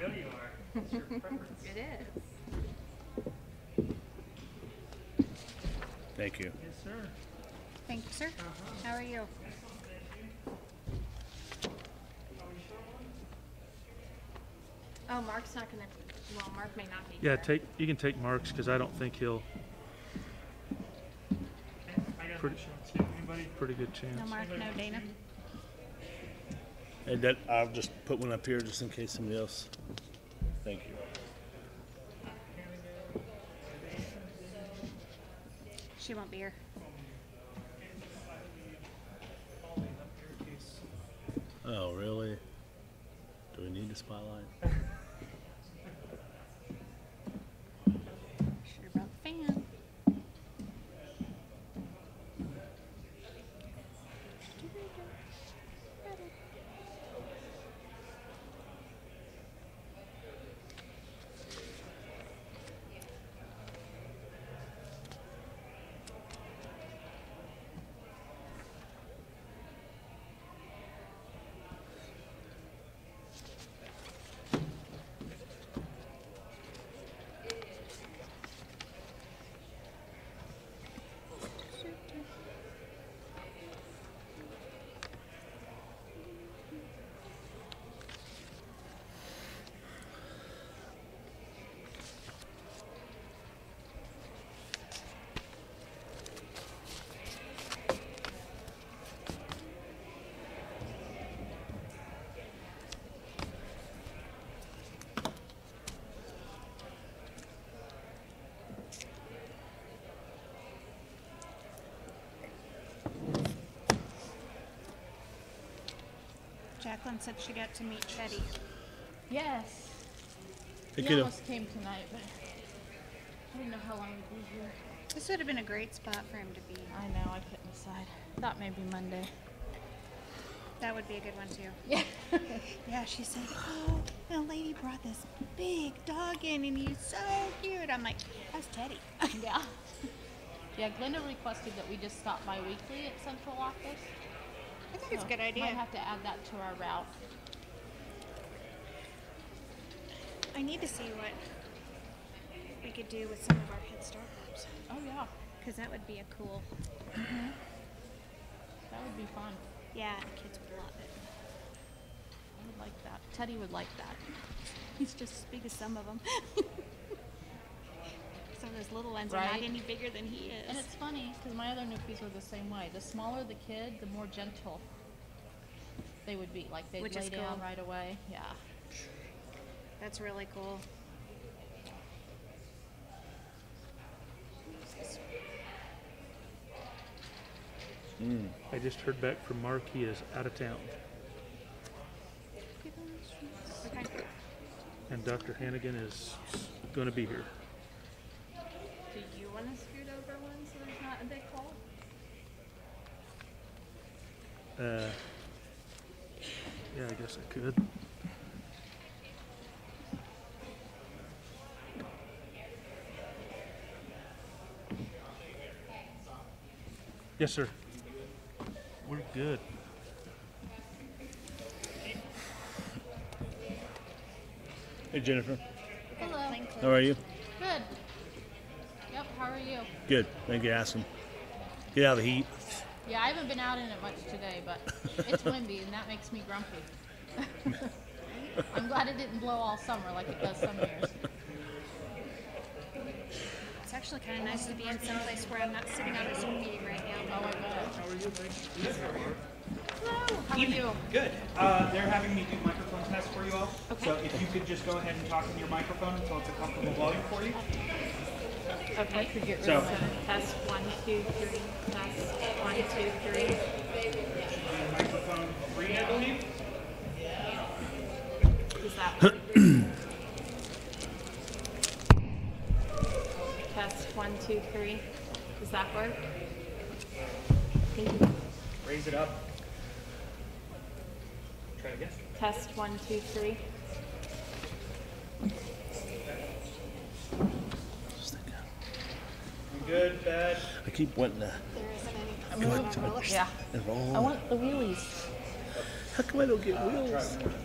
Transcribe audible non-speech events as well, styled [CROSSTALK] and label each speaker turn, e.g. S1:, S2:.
S1: know you are. It's your preference.
S2: It is.
S3: Thank you.
S1: Yes, sir.
S4: Thank you, sir.
S2: Uh-huh.
S4: How are you?
S2: Oh, Mark's not gonna, well, Mark may not be here.
S1: Yeah, take, you can take Mark's, because I don't think he'll,
S5: I got
S1: Pretty-
S5: no shorts. Anybody?
S1: pretty good chance.
S4: No Mark,
S2: Mm-hmm.
S4: no Dana.
S3: And that, I'll just put one up here just in case somebody else. Thank you.
S4: She won't be here.
S3: Oh, really? Do we need a spotlight?
S4: Sure brought the fan. Jacqueline said she got to meet Chetty.
S6: Yes.
S3: Hey,
S6: he
S3: kiddo.
S6: almost came tonight, but I didn't know how long he'd be here.
S4: This would have been a great spot for him to be.
S6: I know, I couldn't decide. Thought maybe
S4: [LAUGHS]
S6: Monday.
S4: That would be a good one too.
S6: Yeah.
S4: [LAUGHS] Yeah, she said, "Oh, the lady brought this big dog in, and he's so cute." I'm like, "That's Teddy." [LAUGHS]
S6: yeah. [LAUGHS] Yeah, Glenda requested that we just stop by weekly at central office.
S4: I think it's a
S6: so
S4: good
S2: Oh,
S4: idea.
S6: Might have to add that to our route.
S4: I need to see what we could do with some of our Head Start groups,
S6: Oh yeah,
S4: because that would be a cool.
S6: that would be fun.
S4: Yeah, the kids would love it. [LAUGHS]
S6: I would like that. Teddy would like that.
S4: He's just as big as some of them. [LAUGHS] some of those little ones are
S6: Right.
S4: not any bigger than he is.
S6: And it's funny because my other nookies were the same way. The smaller the kid, the more gentle they would be. Like they'd
S4: Which
S6: lay
S4: is
S6: down
S4: cool.
S6: right away. Yeah.
S4: That's really cool.
S1: I just heard back from Mark, he is out of town.
S4: Okay.
S1: And Dr. Hannigan is gonna be here.
S2: Do you wanna scoot over one so there's not a big hole?
S1: Uh, yeah, I guess I could. Yes, sir. We're good.
S3: Hey, Jennifer.
S6: Hello.
S3: How are you?
S6: Good. Yep. How are you?
S3: Good. Thank you. Asking. Get out of the heat.
S6: Yeah, I haven't been out in it much today, but it's windy and that makes me grumpy. [LAUGHS] I'm glad it didn't blow all summer like it does some years.
S4: It's actually kind of nice to be in some place where I'm not sitting on a Zoom meeting right
S6: Oh
S4: now.
S6: my god. How are you? Hello. How are you?
S5: Good. Uh, they're having me do microphone tests for you all.
S2: Okay.
S5: So if you could just go ahead and talk in your microphone until it's a comfortable volume for you.
S2: Okay.
S5: So
S2: Test one, two, three, test one, two, three.
S5: microphone three, I believe.
S2: Is that? Test one, two, three. Does that work?
S5: Raise it up. Try again.
S2: Test one, two, three.
S5: You Good, bad.
S3: I keep wanting to
S4: There isn't any.
S3: go up to it
S6: Yeah.
S3: and
S6: I
S3: roll.
S6: want the wheelies.
S3: How come I don't get wheels?